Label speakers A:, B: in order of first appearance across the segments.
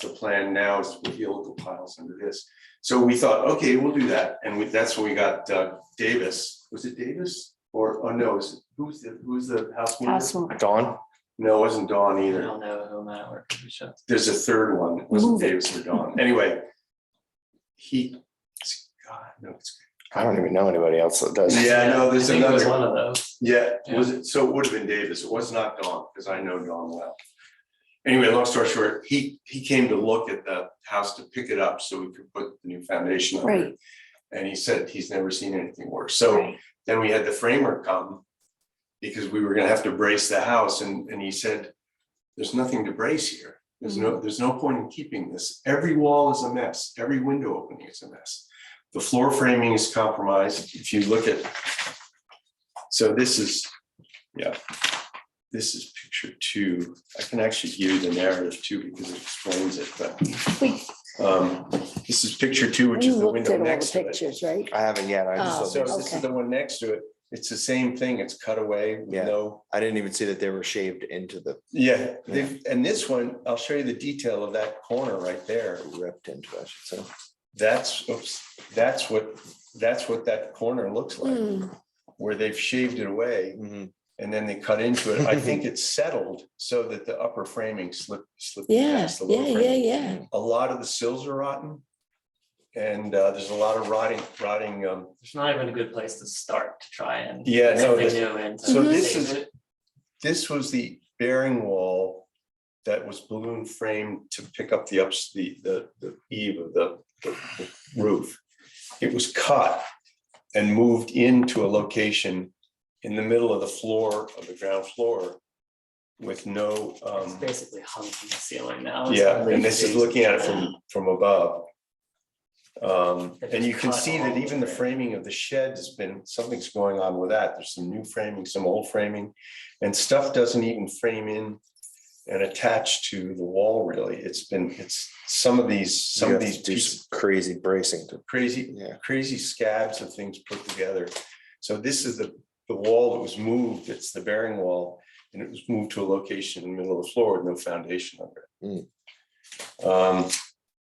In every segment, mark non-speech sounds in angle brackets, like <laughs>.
A: the plan now is with helical piles under this. So we thought, okay, we'll do that, and we, that's when we got uh, Davis, was it Davis? Or, oh no, is- who's the, who's the house mover?
B: House move.
C: Dawn?
A: No, it wasn't Dawn
D: I
A: either.
D: don't know who that were. we should-
A: There's a third one, it wasn't
B: Move it.
A: Davis or Dawn, anyway. He, God, no, it's.
C: I don't even know anybody else that does.
A: Yeah, no,
D: I
A: there's
D: think it was
A: another-
D: One of those.
A: Yeah, was it, so it would have been Davis, it was not Don, because I know Don well. Anyway, long story short, he, he came to look at the house to pick it up so we could put the new foundation on it.
B: Right.
A: And he said he's never seen anything worse, so
B: Right.
A: then we had the framer come. Because we were gonna have to brace the house and, and he said, there's nothing to brace here. There's no,
B: Mm-hmm.
A: there's no point in keeping this. Every wall is a mess, every window opening is a mess. The floor framing is compromised. If you look at so this is, yeah, this is picture two. I can actually give you the narrative too because it explains it,
B: We-
A: but um, this is picture two, which
B: You
A: is the
B: looked
A: window
B: at all the
A: next to it.
B: pictures, right?
C: I haven't yet. I
B: Oh.
C: just,
A: So this
B: okay.
A: is the one next to it. It's the same thing. It's cut away with
C: Yeah.
A: no,
C: I didn't even see that they were shaved into the,
A: yeah. they've- And this one, I'll show you the detail of that corner right there.
C: ripped into, I should say.
A: That's, oops, that's what, that's what that corner looks like,
B: Mm,
A: where they've shaved it away.
C: Mhm.
A: and then they cut into it. I think it's settled so that the upper framing slipped, slipped
B: Yeah,
A: past the
B: yeah,
A: lower
B: yeah,
A: framing.
B: yeah.
A: A lot of the sills are rotten. And uh, there's a lot of rotting, rotting, um,
D: It's not even a good place to start to try and.
A: Yeah,
D: get
A: no,
D: something
A: this-
D: new and.
A: so this
D: save
A: is-
D: it.
A: this was the bearing wall that was balloon framed to pick up the ups, the, the, the eave of the, the the roof. It was cut and moved into a location in the middle of the floor, of the ground floor with no,
D: It's
A: um,
D: basically hung from the ceiling now. It's
A: Yeah,
D: not
A: and this is
D: raised.
A: looking at it from, from above. Um, and
D: It just
A: you can
D: cut
A: see
D: all
A: that
D: the
A: even the
D: way.
A: framing of the shed has been, something's going on with that. There's some new framing, some old framing. And stuff doesn't even frame in and attach to the wall really. It's been, it's some of these, some
C: You
A: of
C: have to
A: these
C: do
A: pieces,
C: some Crazy bracing to,
A: crazy,
C: yeah.
A: crazy scabs of things put together. So this is the, the wall that was moved. It's the bearing wall. And it was moved to a location in the middle of the floor with no foundation under it. Um,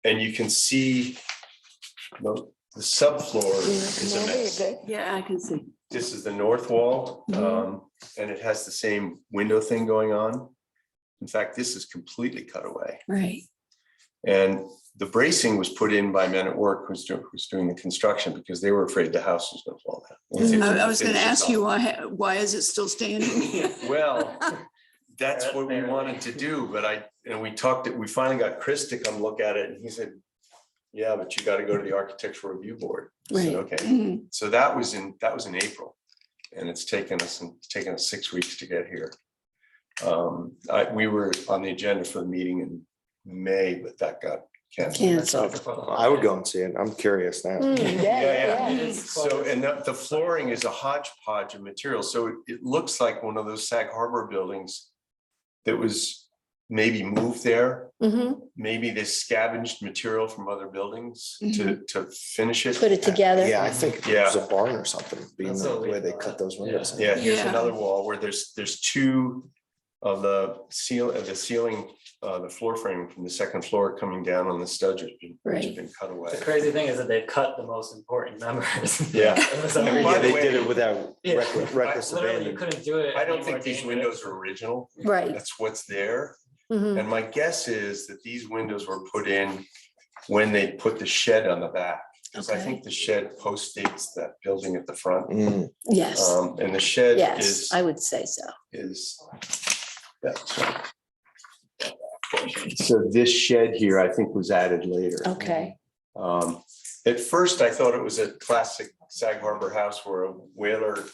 A: and you can see the, the subfloor is a mess.
B: Yeah, I can see.
A: This is the north wall,
B: Mhm.
A: um, and it has the same window thing going on. In fact, this is completely cut away.
B: Right.
A: And the bracing was put in by Men at Work, who's doing, who's doing the construction, because they were afraid the house was gonna fall down. once they
E: I
A: put
E: I
A: the
E: was gonna
A: finishes
E: ask
A: on.
E: you, why, why is it still
B: <laughs>
E: standing?
A: Well, that's what we
D: Apparently.
A: wanted to do, but I, and we talked, we finally got Chris to come look at it, and he said, yeah, but you gotta go to the architectural review board. I said,
B: Right. Mm-hmm.
A: Okay,
E: Mhm.
A: so that was in, that was in April. And it's taken us, it's taken us six weeks to get here. Um, I, we were on the agenda for the meeting in May, but that got canceled.
B: Canceled.
C: I would go and see it. I'm curious now.
B: Mm, yeah,
A: Yeah,
B: yeah.
D: yeah.
A: So, and the, the flooring is a hodgepodge of material, so it, it looks like one of those Sag Harbor buildings that was maybe moved there,
B: Mhm.
A: maybe they scavenged material from other buildings to, to finish it.
B: Mm-hmm. Put it together.
C: Yeah, I think it was a barn or something, being
D: That's
C: the
D: what we
C: way they
D: thought.
C: cut those windows.
A: Yeah, here's
E: Yeah.
A: another wall where there's, there's two of the seal, of the ceiling, uh, the floor frame from the second floor coming down on the studs, which have been- which have
B: Right.
A: been cut away.
D: The crazy thing is that they've cut the most important members. <laughs>
A: Yeah.
D: For some
A: And
C: Yeah,
A: by
D: reason.
A: the
C: They
A: way-
C: did it without
D: Yeah.
C: reckless- reckless
D: Literally, you
C: abandon.
D: couldn't do it.
A: I don't
D: any more
A: think these
D: dangerous.
A: windows are original,
B: Right.
A: that's what's there.
B: Mhm.
A: And my guess is that these windows were put in when they put the shed on the back. Because I
B: Okay.
A: think the shed postdates that building at the front.
C: Mm,
B: Yes,
A: Um, And the shed
B: yes,
A: is,
B: I would say so.
A: is. that's right. So this shed here, I think, was added later.
B: Okay.
A: Um, At first, I thought it was a classic Sag Harbor house where a whaler,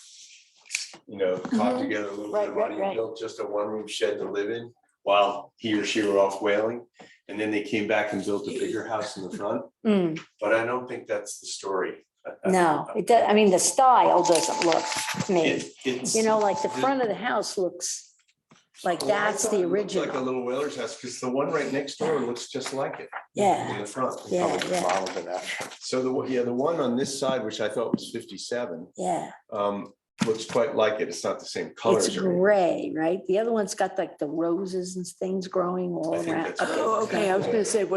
A: you know, caught
B: Mhm.
A: together a little bit
B: Right,
A: of
B: right,
A: money and
B: right.
A: built just a one-room shed to live in while he or she were off whaling. And then they came back and built a bigger house in the front,
B: Mm,
A: but I don't think that's the story. I- I-
B: No, it does, I mean, the style doesn't look to me,
A: It- It's.
B: you know, like the front of the house looks like
A: Well, Oh, I
B: that's
A: thought
B: the
A: it looked Like a
B: original.
A: little whaler's house, because the one right next door looks just like it. In
B: Yeah,
A: the front.
B: yeah,
C: probably
B: yeah,
C: modeled it after.
A: So the, one- yeah, the one on this side, which I thought was fifty-seven,
B: yeah.
A: um, looks quite like it. It's not the same colors.
B: It's gray, right? The other one's got like the roses and things growing all
A: I think
B: around.
A: that's right.
E: Oh, okay, I was gonna say,